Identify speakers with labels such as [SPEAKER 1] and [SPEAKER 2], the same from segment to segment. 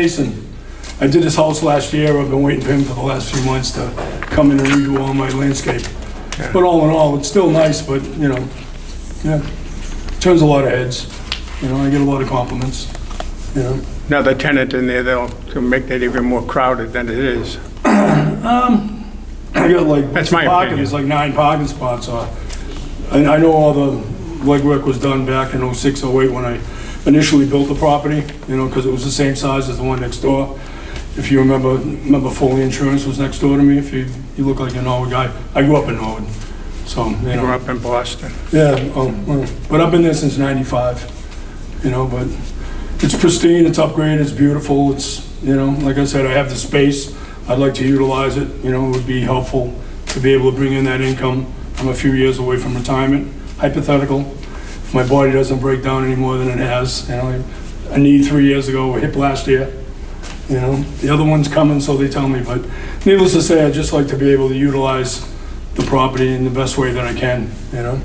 [SPEAKER 1] Mason. I did his house last year. I've been waiting for him for the last few months to come in and redo all my landscape. But all in all, it's still nice, but, you know, yeah, turns a lot of heads. You know, I get a lot of compliments, you know.
[SPEAKER 2] Now the tenant in there, they'll to make that even more crowded than it is.
[SPEAKER 1] I got like.
[SPEAKER 2] That's my
[SPEAKER 1] parking,
[SPEAKER 2] opinion.
[SPEAKER 1] There's like nine parking spots off. And I know all the legwork was done back in '06, '08 when I initially built the property, you know, because it was the same size as the one next door. If you remember, remember Foley Insurance was next door to me, if you, you look like a Norwood guy. I grew up in Norwood, so, you
[SPEAKER 2] They were
[SPEAKER 1] know.
[SPEAKER 2] up in Boston.
[SPEAKER 1] Yeah, um, well, but I've been there since '95, you know, but it's pristine, it's upgraded, it's beautiful, it's, you know, like I said, I have the space, I'd like to utilize it, you know, it would be helpful to be able to bring in that income. I'm a few years away from retirement, hypothetical, if my body doesn't break down any more than it has, you know, I need three years ago, a hip last year, you know, the other one's coming, so they tell me, but needless to say, I'd just like to be able to utilize the property in the best way that I can, you know?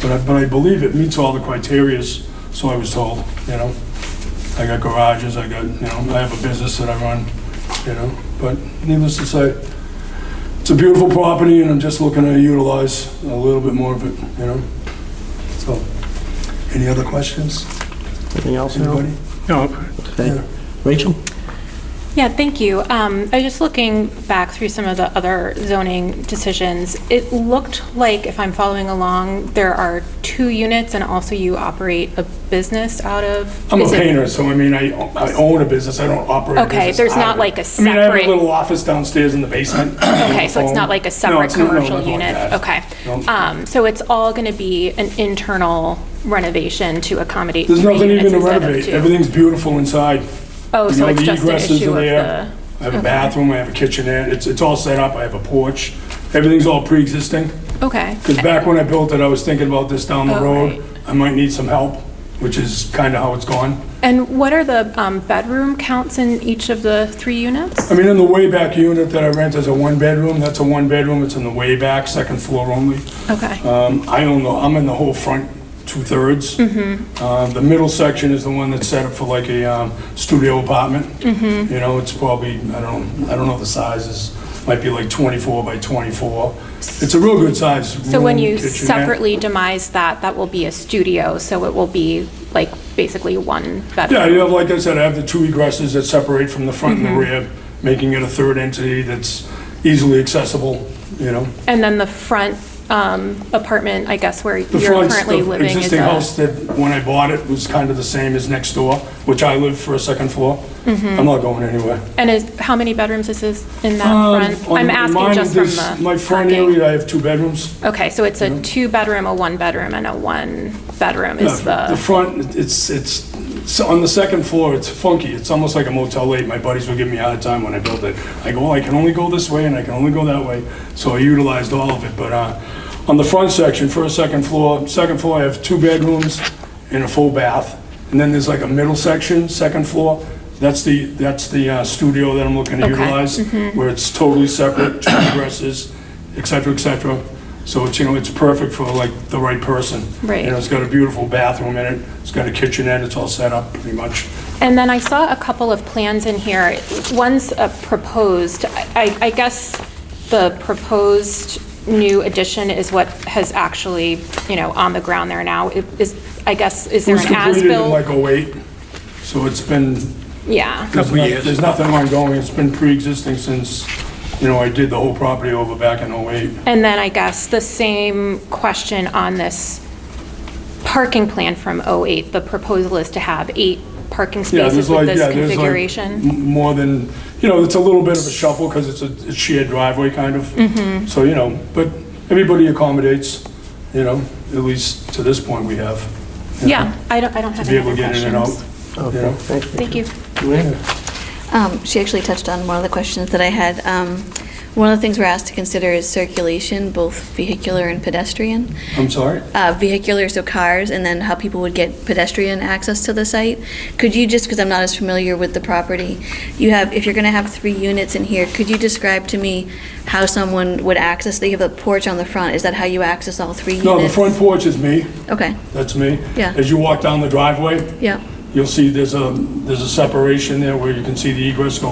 [SPEAKER 1] But I, but I believe it meets all the criterias, so I was told, you know? I got garages, I got, you know, I have a business that I run, you know, but needless to say, it's a beautiful property and I'm just looking to utilize a little bit more of it, you know? So, any other questions,
[SPEAKER 3] Anything else, Harold?
[SPEAKER 1] anybody?
[SPEAKER 2] No,
[SPEAKER 3] Okay. Rachel?
[SPEAKER 4] Yeah, thank you. Um, I was just looking back through some of the other zoning decisions. It looked like, if I'm following along, there are two units, and also you operate a business out of?
[SPEAKER 1] I'm a
[SPEAKER 4] is it-
[SPEAKER 1] painter, so I mean, I, I own a business, I don't operate a
[SPEAKER 4] Okay,
[SPEAKER 1] business.
[SPEAKER 4] there's
[SPEAKER 1] out of
[SPEAKER 4] not
[SPEAKER 1] it.
[SPEAKER 4] like a
[SPEAKER 1] I mean, I have a
[SPEAKER 4] separate-
[SPEAKER 1] little office downstairs in the basement.
[SPEAKER 4] Okay, so it's not like a separate commercial unit? Okay. Um, So it's all going to be an internal renovation to accommodate
[SPEAKER 1] There's
[SPEAKER 4] three
[SPEAKER 1] nothing even
[SPEAKER 4] units
[SPEAKER 1] to
[SPEAKER 4] instead of
[SPEAKER 1] renovate,
[SPEAKER 4] two?
[SPEAKER 1] everything's beautiful inside.
[SPEAKER 4] Oh,
[SPEAKER 1] You
[SPEAKER 4] so
[SPEAKER 1] know,
[SPEAKER 4] it's
[SPEAKER 1] the
[SPEAKER 4] just an
[SPEAKER 1] egresses
[SPEAKER 4] issue
[SPEAKER 1] are
[SPEAKER 4] of
[SPEAKER 1] there. I
[SPEAKER 4] the?
[SPEAKER 1] have a bathroom, I have a kitchenette, it's, it's all set up, I have a porch, everything's all pre-existing.
[SPEAKER 4] Okay.
[SPEAKER 1] Because back when I built it, I was thinking about this down the
[SPEAKER 4] Oh,
[SPEAKER 1] road,
[SPEAKER 4] right.
[SPEAKER 1] I might need some help, which is kind of how it's gone.
[SPEAKER 4] And what are the um, bedroom counts in each of the three units?
[SPEAKER 1] I mean, in the way back unit that I rent is a one-bedroom, that's a one-bedroom, it's in the way back, second floor only.
[SPEAKER 4] Okay.
[SPEAKER 1] Um, I own the, I'm in the whole front two-thirds.
[SPEAKER 4] Mm-hmm.
[SPEAKER 1] Uh, The middle section is the one that's set up for like a um, studio apartment.
[SPEAKER 4] Mm-hmm.
[SPEAKER 1] You know, it's probably, I don't, I don't know the sizes, might be like 24 by 24. It's a real good size.
[SPEAKER 4] So when
[SPEAKER 1] room,
[SPEAKER 4] you
[SPEAKER 1] kitchenette.
[SPEAKER 4] separately demise that, that will be a studio, so it will be like basically one
[SPEAKER 1] Yeah,
[SPEAKER 4] bedroom?
[SPEAKER 1] you have, like I said, I have the two egresses that separate from the front and the
[SPEAKER 4] Mm-hmm.
[SPEAKER 1] rear, making it a third entity that's easily accessible, you know?
[SPEAKER 4] And then the front um, apartment, I guess, where
[SPEAKER 1] The
[SPEAKER 4] you're
[SPEAKER 1] front's-
[SPEAKER 4] currently
[SPEAKER 1] the
[SPEAKER 4] living is
[SPEAKER 1] Existing house
[SPEAKER 4] a...
[SPEAKER 1] that, when I bought it, was kind of the same as next door, which I live for a second floor.
[SPEAKER 4] Mm-hmm.
[SPEAKER 1] I'm not going anywhere.
[SPEAKER 4] And is, how many bedrooms is this in that front?
[SPEAKER 1] Um, on-
[SPEAKER 4] I'm
[SPEAKER 1] on mine,
[SPEAKER 4] asking just from
[SPEAKER 1] there's-
[SPEAKER 4] the...
[SPEAKER 1] My front
[SPEAKER 4] parking.
[SPEAKER 1] area, I have two bedrooms.
[SPEAKER 4] Okay, so it's a two-bedroom, a one-bedroom, and a one-bedroom is
[SPEAKER 1] The
[SPEAKER 4] the...
[SPEAKER 1] front, it's, it's, so on the second floor, it's funky. It's almost like a Motel 8. My buddies would give me a hard time when I built it. I go, "Well, I can only go this way and I can only go that way. So I utilized all of it, but, uh, on the front section, first, second floor, second floor, I have two bedrooms and a full bath. And then there's like a middle section, second floor. That's the, that's the uh, studio that I'm looking to
[SPEAKER 4] Okay.
[SPEAKER 1] utilize,
[SPEAKER 4] Mm-hmm.
[SPEAKER 1] where it's totally separate, two dresses, et cetera, et cetera. So it's, you know, it's perfect for like the right person.
[SPEAKER 4] Right.
[SPEAKER 1] You know, it's got a beautiful bathroom in it, it's got a kitchenette, it's all set up pretty much.
[SPEAKER 4] And then I saw a couple of plans in here. One's uh, proposed, I I guess the proposed new addition is what has actually, you know, on the ground there now. It Is, I guess, is
[SPEAKER 1] It
[SPEAKER 4] there
[SPEAKER 1] was
[SPEAKER 4] an
[SPEAKER 1] completed in
[SPEAKER 4] as-built?
[SPEAKER 1] like '08, so it's been,
[SPEAKER 4] Yeah,
[SPEAKER 1] there's
[SPEAKER 2] Couple
[SPEAKER 1] not-
[SPEAKER 2] years.
[SPEAKER 1] there's nothing ongoing, it's been pre-existing since, you know, I did the whole property over back in '08.
[SPEAKER 4] and then I guess the same question on this parking plan from '08. The proposal is to have eight parking
[SPEAKER 1] Yeah,
[SPEAKER 4] spaces
[SPEAKER 1] there's
[SPEAKER 4] with
[SPEAKER 1] like, yeah,
[SPEAKER 4] this
[SPEAKER 1] there's like
[SPEAKER 4] configuration.
[SPEAKER 1] m- more than, you know, it's a little bit of a shuffle because it's a it's shared driveway kind
[SPEAKER 4] Mm-hmm.
[SPEAKER 1] of. So, you know, but everybody accommodates, you know, at least to this point we have. you know,
[SPEAKER 4] Yeah, I don't, I don't have
[SPEAKER 1] To be
[SPEAKER 4] any
[SPEAKER 1] able
[SPEAKER 4] other
[SPEAKER 1] to get in and out,
[SPEAKER 4] questions.
[SPEAKER 1] you know?
[SPEAKER 4] Thank you.
[SPEAKER 5] Um, She actually touched on one of the questions that I had. Um, One of the things we're asked to consider is circulation, both vehicular and pedestrian.
[SPEAKER 1] I'm sorry?
[SPEAKER 5] Uh, Vehicular, so cars, and then how people would get pedestrian access to the site. Could you just, because I'm not as familiar with the property, you have, if you're going to have three units in here, could you describe to me how someone would access, they have a porch on the front, is that how you access all three units?
[SPEAKER 1] No, the front porch is me.
[SPEAKER 5] Okay,
[SPEAKER 1] That's me.
[SPEAKER 5] Yeah.
[SPEAKER 1] As you walk down the driveway,
[SPEAKER 5] yeah,
[SPEAKER 1] you'll see there's a, there's a separation there where you can see the egress going